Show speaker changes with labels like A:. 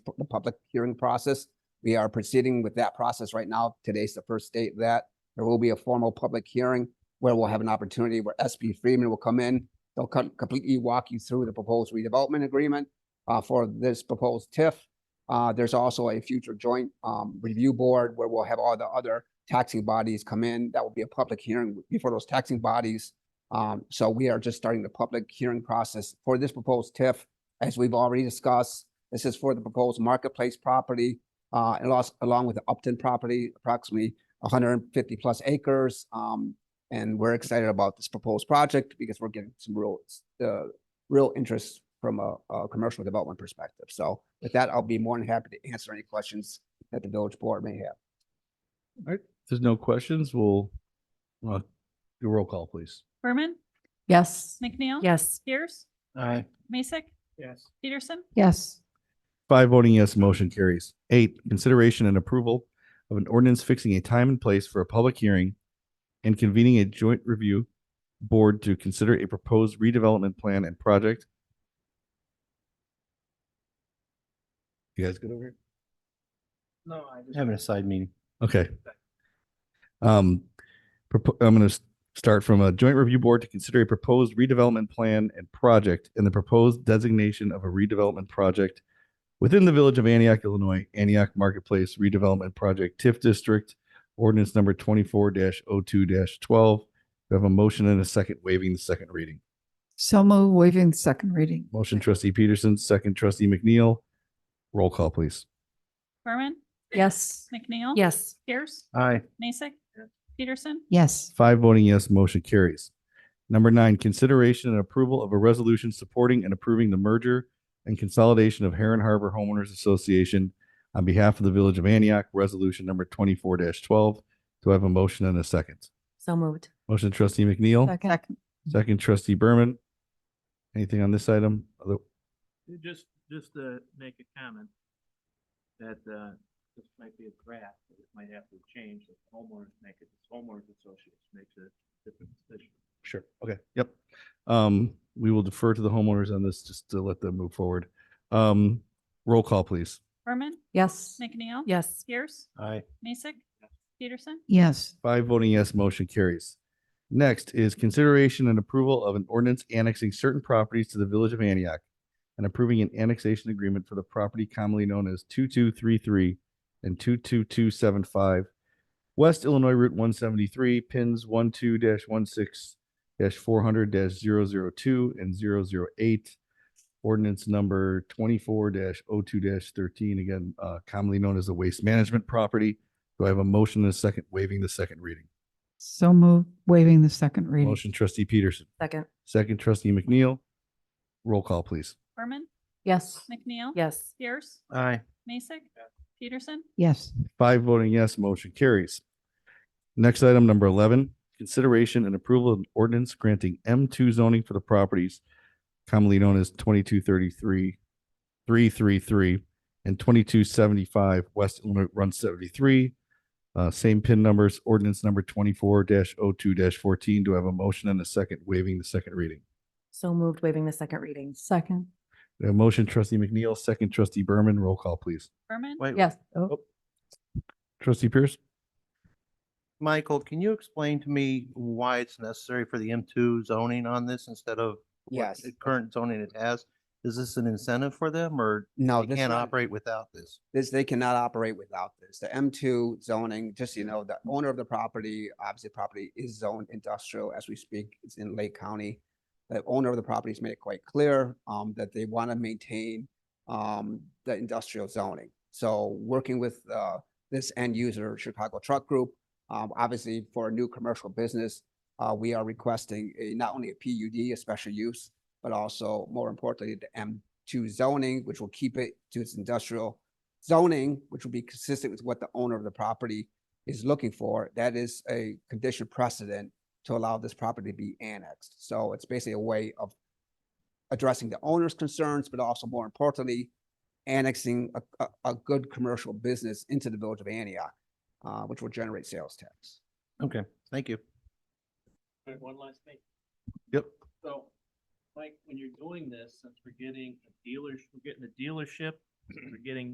A: p- the public hearing process. We are proceeding with that process right now. Today's the first date of that. There will be a formal public hearing where we'll have an opportunity where SB Freeman will come in. They'll com- completely walk you through the proposed redevelopment agreement uh, for this proposed TIF. Uh, there's also a future joint um, review board where we'll have all the other taxing bodies come in. That will be a public hearing before those taxing bodies. Um, so we are just starting the public hearing process for this proposed TIF. As we've already discussed, this is for the proposed marketplace property, uh, and los- along with the Upton property, approximately hundred and fifty plus acres. Um, and we're excited about this proposed project because we're getting some real, uh, real interest from a, a commercial development perspective. So with that, I'll be more than happy to answer any questions that the village board may have.
B: there's no questions, we'll, uh, do a roll call, please.
C: Berman,
D: Yes.
C: McNeil.
D: Yes.
C: Pierce,
E: Aye.
C: Mason,
E: Yes.
C: Peterson,
D: Yes.
B: Five voting yes, motion carries. Eight, consideration and approval of an ordinance fixing a time and place for a public hearing and convening a joint review board to consider a proposed redevelopment plan and project. You guys good over here?
E: No, I just. Having a side meeting.
B: Okay. Um, propo- I'm going to start from a joint review board to consider a proposed redevelopment plan and project and the proposed designation of a redevelopment project within the village of Antioch, Illinois, Antioch Marketplace Redevelopment Project TIF District, ordinance number twenty-four 2 twelve. We have a motion and a second waiving the second reading.
D: So move waiving the second reading.
B: Motion trustee Peterson, second trustee McNeil. Roll call, please.
C: Berman,
D: Yes.
C: McNeil.
D: Yes.
C: Pierce,
E: Aye.
C: Mason, Peterson,
D: Yes.
B: Five voting yes, motion carries. Number nine, consideration and approval of a resolution supporting and approving the merger and consolidation of Heron Harbor Homeowners Association on behalf of the Village of Antioch, resolution number twenty-four twelve. Do I have a motion and a second?
D: So moved.
B: Motion trustee McNeil,
D: Second.
B: second trustee Berman. Anything on this item? Other-
F: Just, just to make a comment that, uh, this might be a draft, but it might have to change if homeowners make it, if homeowners associates makes a different decision.
B: Sure. Okay. Yep. Um, we will defer to the homeowners on this just to let them move forward. Um, roll call, please.
C: Berman,
D: Yes.
C: McNeil.
D: Yes.
C: Pierce,
E: Aye.
C: Mason, Peterson,
D: Yes.
B: Five voting yes, motion carries. Next is consideration and approval of an ordinance annexing certain properties to the Village of Antioch and approving an annexation agreement for the property commonly known as 2233 and 22275 West Illinois Route 173, pins 12-16-400-002 and 008. Ordinance number 24-02-13, again, uh, commonly known as the waste management property. Do I have a motion and a second waiving the second reading?
D: So move waiving the second reading.
B: Motion trustee Peterson,
D: Second.
B: second trustee McNeil. Roll call, please.
C: Berman,
D: Yes.
C: McNeil.
D: Yes.
C: Pierce,
E: Aye.
C: Mason, Peterson,
D: Yes.
B: Five voting yes, motion carries. Next item, number eleven, consideration and approval of an ordinance granting M two zoning for the properties commonly known as twenty-two thirty-three, three three three, and twenty-two seventy-five West Illinois Run seventy-three. Uh, same pin numbers, ordinance number twenty-four 2 fourteen. Do I have a motion and a second waiving the second reading?
D: So moved waiving the second reading. Second.
B: We have A motion trustee McNeil, second trustee Berman, roll call please.
C: Berman,
E: Wait,
D: Yes.
B: Trustee Pierce?
E: Michael, can you explain to me why it's necessary for the M two zoning on this instead of what
A: Yes.
E: the current zoning it has? Is this an incentive for them or
A: No,
E: they
A: this
E: can't
A: one-
E: operate without this?
A: this, they cannot operate without this. The M two zoning, just, so you know, the owner of the property, obviously property is zoned industrial as we speak. It's in Lake County. The owner of the property has made it quite clear, um, that they want to maintain, um, the industrial zoning. So working with, uh, this end user, Chicago Truck Group, um, obviously for a new commercial business, uh, we are requesting a, not only a PUD, a special use, but also more importantly, the M two zoning, which will keep it to its industrial zoning, which will be consistent with what the owner of the property is looking for, that is a condition precedent to allow this property to be annexed. So it's basically a way of addressing the owner's concerns, but also more importantly, annexing a, a, a good commercial business into the village of Antioch, uh, which will generate sales tax.
E: Okay, thank you.
F: All right, one last thing.
B: Yep.
F: So, Mike, when you're doing this, since we're getting a dealers, we're getting a dealership, we're getting